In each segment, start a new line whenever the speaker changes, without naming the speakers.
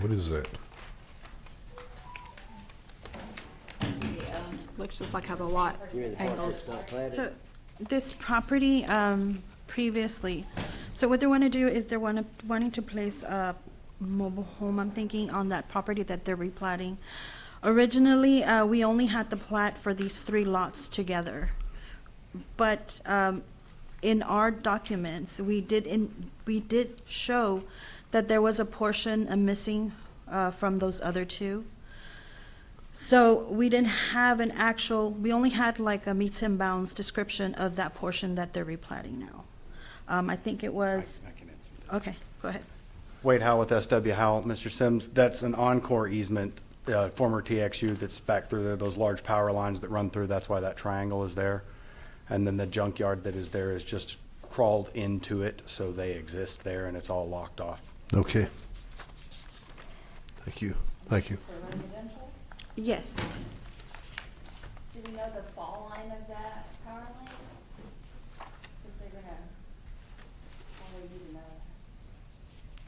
What is that?
Looks just like how the lot
You mean the part
angles.
that's not platted?
So this property um, previously, so what they want to do is they're wanna- wanting to place a mobile home, I'm thinking, on that property that they're replating. Originally, uh, we only had the plat for these three lots together. But um, in our documents, we did, in we did show that there was a portion uh, missing uh, from those other two. So we didn't have an actual, we only had like a meets and bounds description of that portion that they're replating now. Um, I think it was, okay, go ahead.
Wade Howe with SW Howe. Mr. Sims, that's an encore easement, uh, former TXU that's back through there, those large power lines that run through, that's why that triangle is there. And then the junkyard that is there is just crawled into it, so they exist there and it's all locked off.
Okay. Thank you, thank you.
For residential,
Yes,
do we know the fall line of that power line? Because they're gonna, how would you know?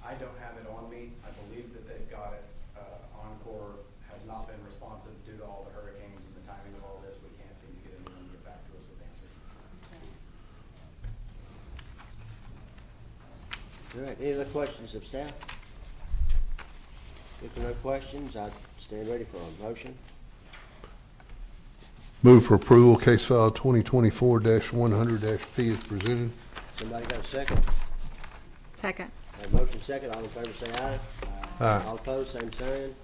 I don't have it on me. I believe that they've got it. Uh, Encore has not been responsive due to all the hurricanes and the timing of all this. We can't seem to get anyone to get back to us with answers.
All right, any other questions of staff? If there are no questions, I stand ready for a motion.
Move for approval, case file twenty twenty-four one hundred P is presented.
Somebody got a second?
Second.
Have a motion second, all in favor say aye.
Aye.
All opposed, same sign.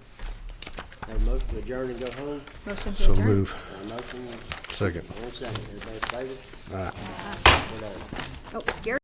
Have a motion to adjourn and go home.
Motion to
So
adjourn.
move,
Have a motion,
second.
one second, everybody in favor?
Aye.
We're done.
Oh, scary.